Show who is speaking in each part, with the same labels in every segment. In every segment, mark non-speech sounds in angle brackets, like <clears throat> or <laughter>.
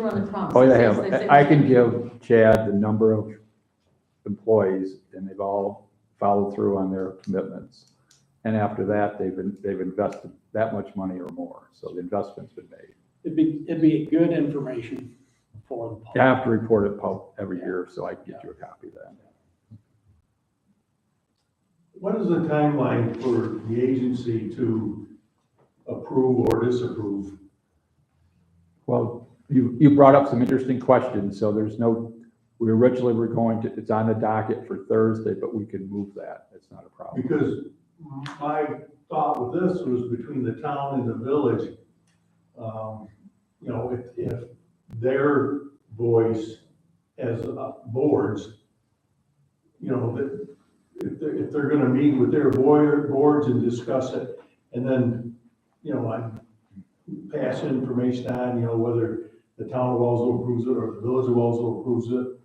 Speaker 1: run the promise.
Speaker 2: Oh, they
Speaker 1: Yes,
Speaker 2: have,
Speaker 1: they said-
Speaker 2: I I can give Chad the number of employees, and they've all followed through on their commitments. And after that, they've, in- they've invested that much money or more, so the investment's been made.
Speaker 3: It'd be, it'd be good information for the
Speaker 2: I
Speaker 3: public.
Speaker 2: have to report it pub- every year, so I can get you a copy of that.
Speaker 4: What is the timeline for the agency to approve or disapprove?
Speaker 2: Well, you, you brought up some interesting questions, so there's no, we originally were going to, it's on the docket for Thursday, but we can move that, it's not a problem.
Speaker 4: Because my thought with this was between the town and the village. um, You know, if, if their voice as uh, boards, you know, that if they're, if they're gonna meet with their board, boards and discuss it, and then, you know, I pass information on, you know, whether the town of Wellsville approves it or the village of Wellsville approves it,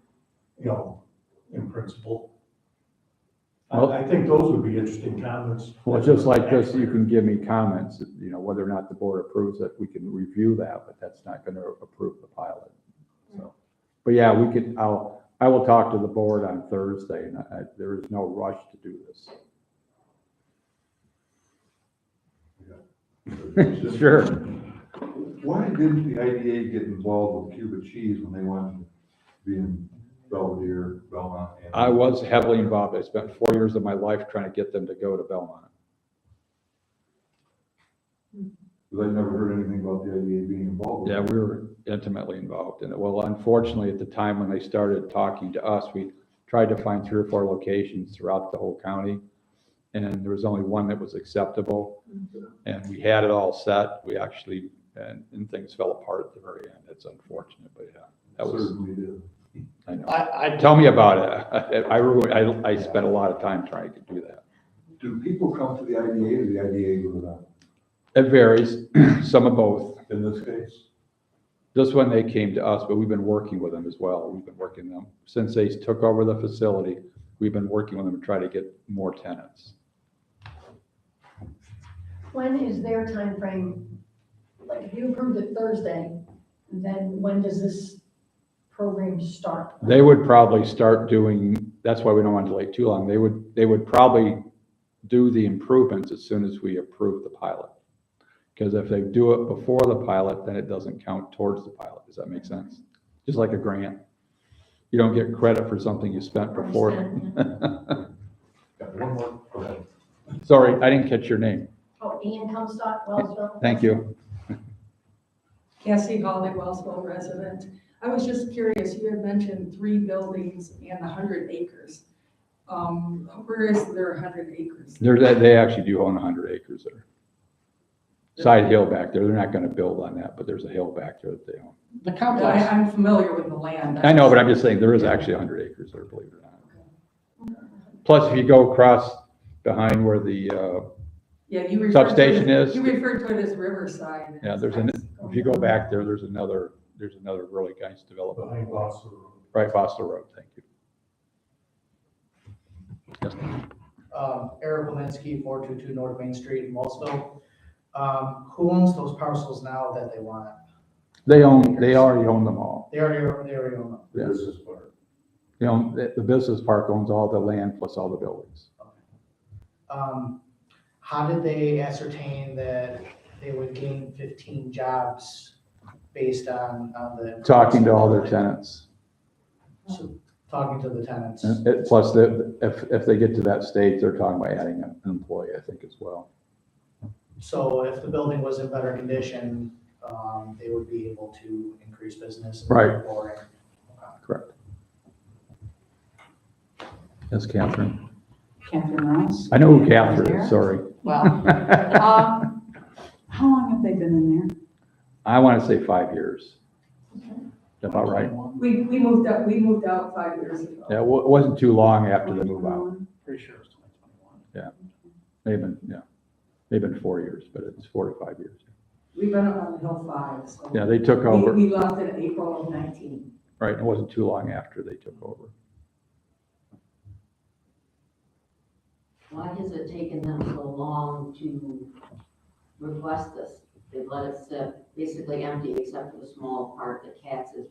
Speaker 4: you know, in principle. I,
Speaker 2: Well-
Speaker 4: I think those would be interesting comments.
Speaker 2: Well, just like this, you can give me comments, you know, whether or not the board approves it, we can review that, but that's not gonna approve the pilot. So, but yeah, we could, I'll, I will talk to the board on Thursday, and I, there is no rush to do this. <laughs> Sure.
Speaker 5: Why didn't the IDA get involved with Cuba cheese when they wanted to be in Belvedere, Belmont? and-
Speaker 2: I was heavily involved. I spent four years of my life trying to get them to go to Belmont.
Speaker 5: Because I never heard anything about the IDA being involved. with
Speaker 2: Yeah,
Speaker 5: it.
Speaker 2: we were intimately involved in it. Well, unfortunately, at the time when they started talking to us, we tried to find three or four locations throughout the whole county. And there was only one that was acceptable. And we had it all set. We actually, and, and things fell apart at the very end. It's unfortunate, but yeah, that was,
Speaker 5: Certainly did.
Speaker 2: I know.
Speaker 3: I, I,
Speaker 2: Tell me about it. <laughs> I, ru- I, I spent a lot of time trying to do that.
Speaker 5: Do people come to the IDA or the IDA go to them
Speaker 2: It varies, <clears throat> some of both.
Speaker 5: in this case?
Speaker 2: This one, they came to us, but we've been working with them as well. We've been working them, since they took over the facility, we've been working with them to try to get more tenants.
Speaker 6: When is their time frame? Like, if you approved it Thursday, then when does this program start?
Speaker 2: They would probably start doing, that's why we don't want to delay too long. They would, they would probably do the improvements as soon as we approve the pilot. Because if they do it before the pilot, then it doesn't count towards the pilot. Does that make sense? Just like a grant. You don't get credit for something you spent before.
Speaker 6: Understand?
Speaker 5: Got one more, go ahead.
Speaker 2: Sorry, I didn't catch your name.
Speaker 6: Oh, Ian Comstock, Wellsville?
Speaker 2: Thank you.
Speaker 7: Cassie Hall, a Wellsville resident. I was just curious, you had mentioned three buildings and 100 acres. Um, Where is there 100 acres?
Speaker 2: They're, they- they actually do own hundred acres there. Side hill back there, they're not gonna build on that, but there's a hill back there that they own.
Speaker 3: the
Speaker 7: No, I-
Speaker 3: complex,
Speaker 7: I'm familiar with the land.
Speaker 2: I know, but I'm just saying, there is actually hundred acres there, believe it or not. Plus, if you go across behind where the, uh,
Speaker 7: Yeah, you referred to it-
Speaker 2: Substation is-
Speaker 7: You referred to it as Riverside.
Speaker 2: Yeah, there's an- if you go back there, there's another, there's another really nice development,
Speaker 4: Behind Boston Road.
Speaker 2: right, Fossil Road, thank you.
Speaker 8: um, Eric Walensky, four two two North Main Street in Wellsville. Um, who owns those parcels now that they want?
Speaker 2: They own, they already own them all.
Speaker 8: They already, they already own them.
Speaker 2: Yeah.
Speaker 5: This is part.
Speaker 2: They own, the, the business park owns all the land plus all the buildings.
Speaker 8: Um, how did they ascertain that they would gain fifteen jobs based on, on the?
Speaker 2: Talking to all their tenants.
Speaker 8: So, Talking to the tenants.
Speaker 2: And Uh, it- Plus, the- if, if they get to that stage, they're talking about adding an employee, I think, as well.
Speaker 8: So if the building was in better condition, um, they would be able to increase business. and
Speaker 2: Right.
Speaker 8: therefore-
Speaker 2: Correct. Yes, Catherine.
Speaker 9: Catherine Ross.
Speaker 2: I know who Catherine is, sorry.
Speaker 9: Well, um, how long have they been in there?
Speaker 2: I want to say five years. About right.
Speaker 7: We, we moved out, we moved out five years ago.
Speaker 2: Yeah, well, it wasn't too long after the move out.
Speaker 3: pretty sure it's twenty twenty-one.
Speaker 2: They've been, yeah, they've been four years, but it's four to five years.
Speaker 7: We've been on the hill five, so.
Speaker 2: Yeah, they took
Speaker 7: We,
Speaker 2: over,
Speaker 7: we left in April of 19.
Speaker 2: right, it wasn't too long after they took over.
Speaker 1: Why has it taken them so long to request this? They've let it sit basically empty except for the small part that Katz is